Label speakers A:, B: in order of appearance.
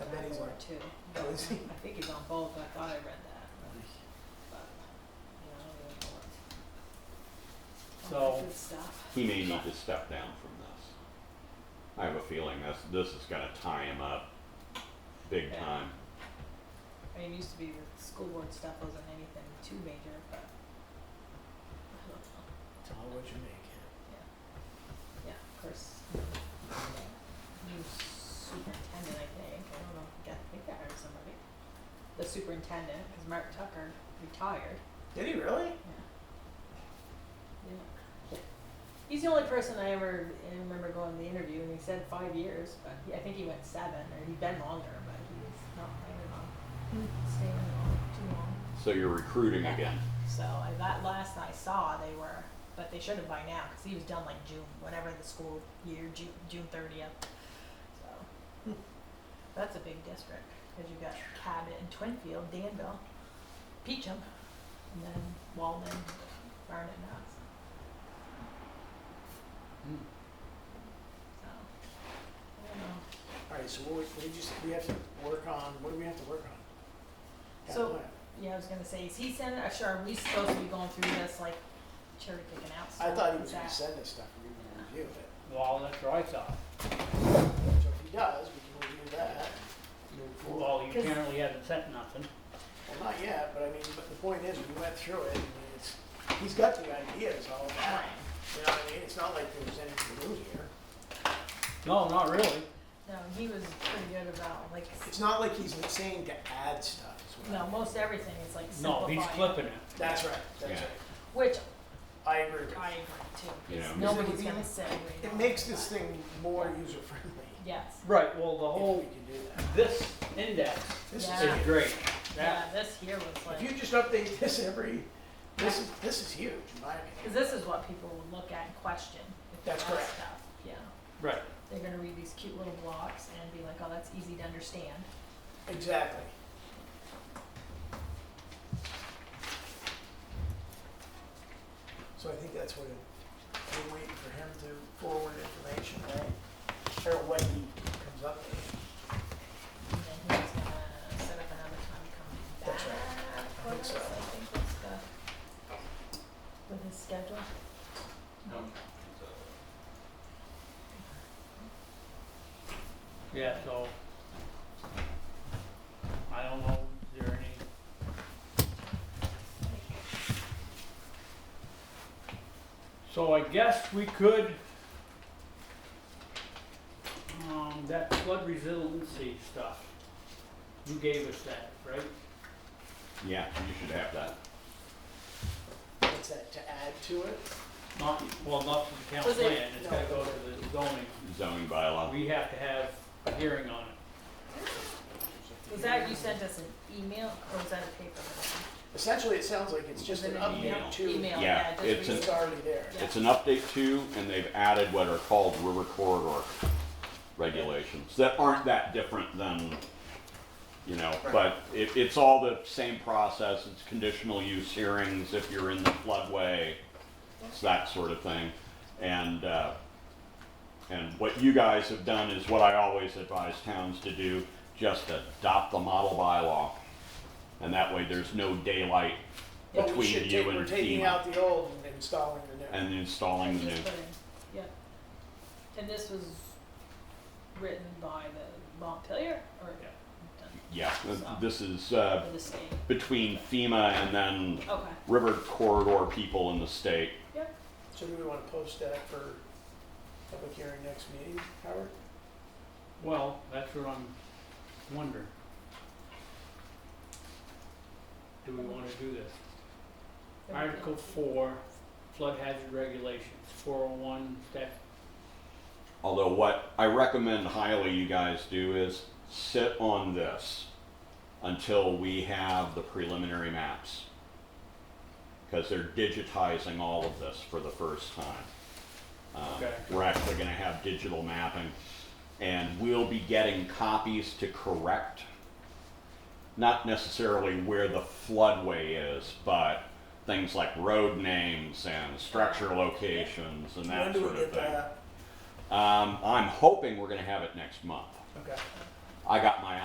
A: too.
B: Oh, is he?
A: I think he's on both, I thought I read that, but, you know, I don't even know what.
B: So-
A: Good stuff.
C: He may need to step down from this. I have a feeling this, this is gonna tie him up big
A: Yeah.
C: time.
A: I mean, it used to be the school board stuff wasn't anything too major, but. I don't know.
B: It's all what you make it.
A: Yeah, of course. New superintendent, I think. I don't know. if I think I hired somebody. The superintendent, because Mark Tucker retired.
B: Did he really?
A: Yeah. He's the only person I ever I remember going to the interview, and he said five years, but he, I think he went seven, or he'd been longer, but he was not planning on staying long, too long.
C: So you're recruiting again.
A: So I, that last I saw, they were, but they should have by now because he was done like June, whatever the school year, June June thirtieth. So that's a big district because you got Cabot and Twinfield, Danville, Peachum, and then Walden, Barnet, and Knox.
B: Hmm.
A: So I don't know.
B: Alright, so what we, we just, we have to work on, what do we have to work on? That
A: So-
B: plan.
A: Yeah, I was gonna say, is he sending? uh, Sure, are we supposed to be going through this like cherry picking out?
B: I
A: stuff?
B: thought he
A: Is
B: was gonna
A: that-
B: send us stuff, and we were gonna review it.
D: Well, that's what I thought.
B: So if he does, we can review that, move forward.
D: Well, you
A: 'Cause-
D: apparently haven't sent nothing.
B: Well, not yet, but I mean, but the point is, we went through it, and it's, he's got the ideas all the
A: Right.
B: time. You know what I mean? It's not like there's anything new here.
D: No, not really.
A: No, he was pretty good about like
B: It's not like he's saying to add stuff as well.
A: no, most everything is like
D: No,
A: simplifying.
D: he's clipping it.
B: That's right, that's
C: Yeah.
B: right.
A: Which
B: I agree with
A: I
B: you.
A: agree too. 'cause
C: You know,
A: nobody's
B: it-
A: gonna say. we
B: It
A: don't
B: makes
A: like
B: this
A: that.
B: thing more user-friendly,
A: Yes.
D: Right, well, the
B: if we
D: whole,
B: can do that.
D: this index
B: This
A: Yeah.
B: is
D: is
B: huge.
D: great.
A: Yeah,
D: That,
A: this here was
B: If you
A: like,
B: just update this every, this is, this is huge, in my opinion.
A: cause this is what people would look at and question. if they
B: That's
A: ask
B: correct.
A: stuff, Yeah,
D: right,
A: they're gonna read these cute little blocks and be like, oh, that's easy to understand.
B: Exactly. So I think that's what, it- we're waiting for him to forward information, right? Or what he comes up with.
A: And then he's gonna set up another time to come back.
B: That's right. I
A: for
B: think
A: us,
B: so.
A: I think that's the, with his schedule.
D: yeah, so. I don't know, is there any, so I guess we could. Um, that flood resiliency stuff, you gave us that, right?
C: Yeah, you should have that.
B: What's that, to add to it?
D: Not, well, not to the council
A: Was it-
D: plan, it's gotta go to the zoning.
C: Zoning bylaw.
D: We have to have a hearing on it.
A: Was that, you sent us an email or was that a paper?
B: Essentially, it sounds like it's just an
A: Wasn't it
B: update to.
A: Email, yeah,
C: Yeah,
A: just.
C: it's an-
B: It's already there.
A: Yeah.
C: It's an update to, and they've added what are called river corridor regulations that aren't that different than, you know, but it, it's all the same process. It's conditional use hearings if you're in the floodway, it's that sort of thing. And, uh, and what you guys have done is what I always advise towns to do, just adopt the model bylaw. And that way, there's no daylight
B: But we
C: between
B: should
C: you
B: take-
C: and
B: We're taking
C: FEMA.
B: out the old and installing the new.
C: and installing the new.
A: Just put in, Yep. And this was written by the Montpelier or done
C: Yeah, th- this is uh,
A: by the state?
C: between FEMA and then
A: Okay,
C: river corridor people in the state.
A: yep.
B: So do we want to post that for public hearing next meeting, Howard?
D: Well, that's what I'm wondering. Do we wanna do this? Article four, flood hazard regulations, four oh one, that,
C: Although what I recommend highly you guys do is sit on this until we have the preliminary maps. Because they're digitizing all of this for the first time. Um,
D: Okay.
C: We're actually gonna have digital mapping and we'll be getting copies to correct. Not necessarily where the floodway is, but things like road names and structure locations and
B: When
C: that
B: do
C: sort
B: we
C: of
B: get
C: thing.
B: that?
C: Um, I'm hoping we're gonna have it next month.
B: Okay.
C: I got my